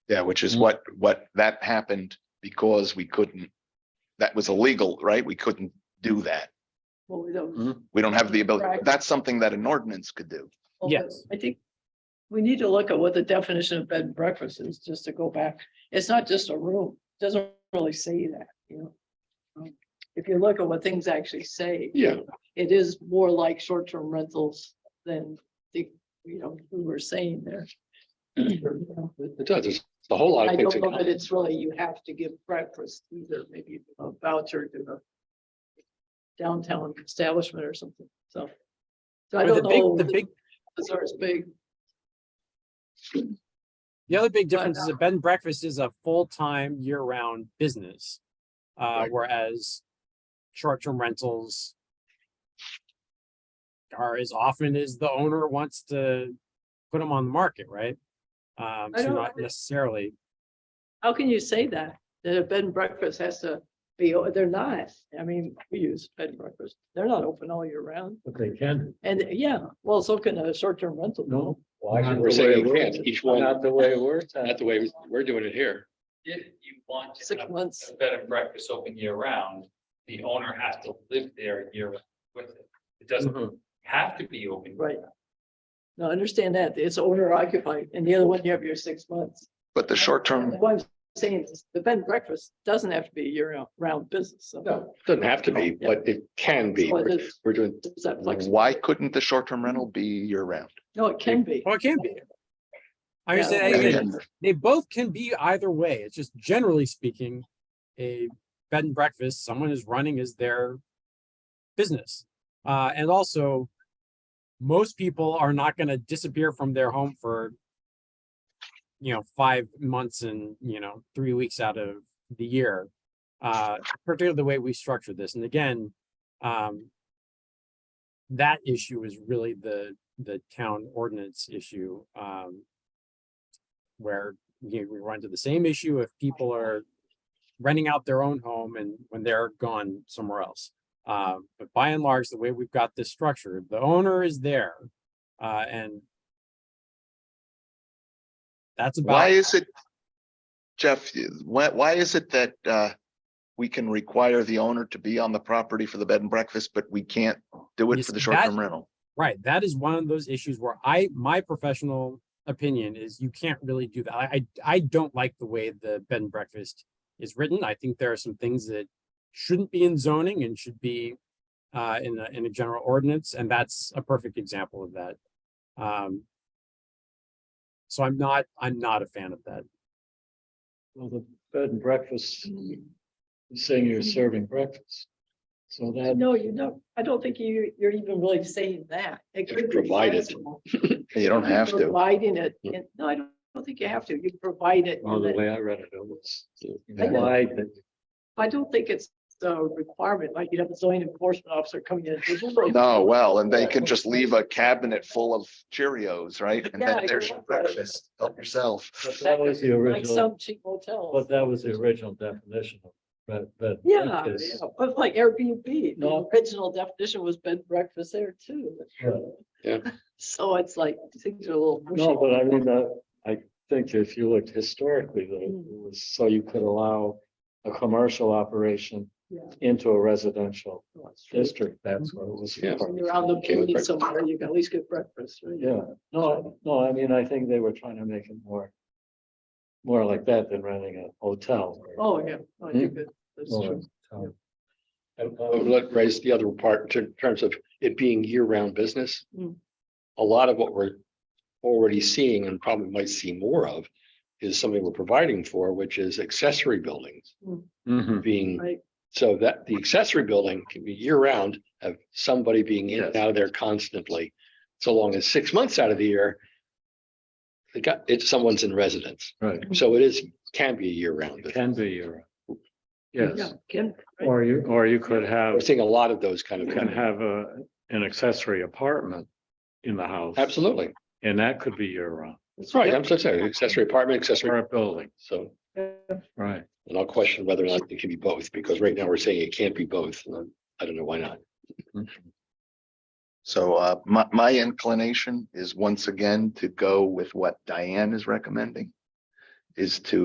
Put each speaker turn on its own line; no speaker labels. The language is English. Yeah, which is
Mm.
what, what, that happened because we couldn't, that was illegal, right? We couldn't do that.
Well, we don't.
We don't have the ability.
Right.
That's something that an ordinance could do.
although
Yes.
I think we need to look at what the definition of bed and breakfast is, just to go back. It's not just a room, doesn't really say that, you know? Um, If you look at what things actually say.
Yeah.
It is more like short-term rentals than the, you know, we were saying there.
It it does. It's a whole lot
I
of things.
don't
in
know that
common.
it's really, you have to give breakfast either, maybe a voucher to the downtown establishment or something, so. So I
Or The
don't know.
big, the big,
Bazaar is big.
the other big
But, uh
difference is a bed and breakfast is a full-time, year-round business. Uh,
Right.
whereas short-term rentals are as often as the owner wants to put them on the market, right? Um,
I
so
don't-
not necessarily,
How can you say that? That a bed and breakfast has to be, o- they're not. I mean, we use bed and breakfast. They're not open all year round.
But they can,
And yeah, well, so can a short-term rental.
no.
Why should- We're saying you can't. Each one,
Not the way we're.
not the way we're doing it here.
If you want to
Six
have
months.
a bed and breakfast open year round, the owner has to live there year round with it. It
Mm-hmm.
doesn't
Mhm.
have to be open.
Right. No, I understand that. It's owner occupied and the other one you have your six months.
But the short term,
What I'm saying is the bed and breakfast doesn't have to be a year-round business. So
No, it doesn't have to be, but it can be.
So it
We're
is-
we're doing,
is that flexible?
why couldn't the short term rental be year round?
No, it can be.
oh, it can be. I
Yeah.
understand,
Yeah.
anything. they both can be either way. It's just generally speaking, a bed and breakfast, someone is running as their business. Uh, and also, most people are not going to disappear from their home for, you know, five months and, you know, three weeks out of the year, uh, particularly the way we structure this. And again, um, that issue is really the the town ordinance issue. Um, where you know, we run into the same issue if people are renting out their own home and when they're gone somewhere else. Uh, but by and large, the way we've got this structured, the owner is there, uh, and that's about.
Why is it? Jeff, why, why is it that, uh, we can require the owner to be on the property for the bed and breakfast, but we can't do it
Yes,
for the
that-
short term rental?
Right. That is one of those issues where I, my professional opinion is you can't really do that. I, I I don't like the way the bed and breakfast is written. I think there are some things that shouldn't be in zoning and should be uh, in a, in a general ordinance, and that's a perfect example of that. Um, so I'm not, I'm not a fan of that.
Well, the bed and breakfast,
Mm,
you're saying you're serving breakfast. So that,
No, you don't. I don't think you, you're even really saying that. It could be
Provided.
flexible.
You don't have to.
Providing it,
Hmm.
and- no, I don't don't think you have to, you provide it,
Oh,
and
the
then-
way I read it, it was
why, that
I don't think it's a requirement, like you'd have a zoning enforcement officer coming in.
No, Oh, well, and they can just leave a cabinet full of Cheerios, right? And
Yeah,
then there's your
exactly.
breakfast, help yourself.
but that was the
Like
original,
some cheap motels.
but that was the original definition of bed, bed. and
Yeah,
breakfast.
yeah, but like Airbnb, the
No.
original definition was bed and breakfast there too.
Right.
So it's like, things are a little.
No,
mushy.
but I mean, uh, I think if you looked historically, that it
Mm.
was so you could allow a commercial operation
Yeah.
into a residential
No, it's true.
district. That's what it was.
Yeah.
for.
When You're on
Okay,
the
with
community
breakfast.
somewhere, you can at least get breakfast, right?
Yeah, no, no, I mean, I think they were trying to make it more. More like that than renting a hotel. or-
Oh, yeah, oh, you
Hmm.
could, that's
or
true.
a town.
And I would like to raise the other part in ter- terms of it being year-round business.
Mm.
A lot of what we're already seeing and probably might see more of is something we're providing for, which is accessory buildings being.
Mm.
Mm-hmm.
Right.
So that the accessory building can be year-round, have somebody being in and out of there constantly. So long as six months out of the year. They got, it's someone's in residence,
Right,
so it is, can be a year-round.
it
business.
can be your.
Yeah,
Yes,
can, right.
or you, or you could have,
We're seeing a lot of those kind
you
of.
can have a, an accessory apartment in the house.
Absolutely.
And that could be your round,
That's right. I'm so sorry. Accessory apartment, accessory.
current building,
So,
right?
and I'll question whether or not it can be both, because right now we're saying it can't be both. and I'm- I don't know why not.
So uh, my, my inclination is once again to go with what Diane is recommending. is to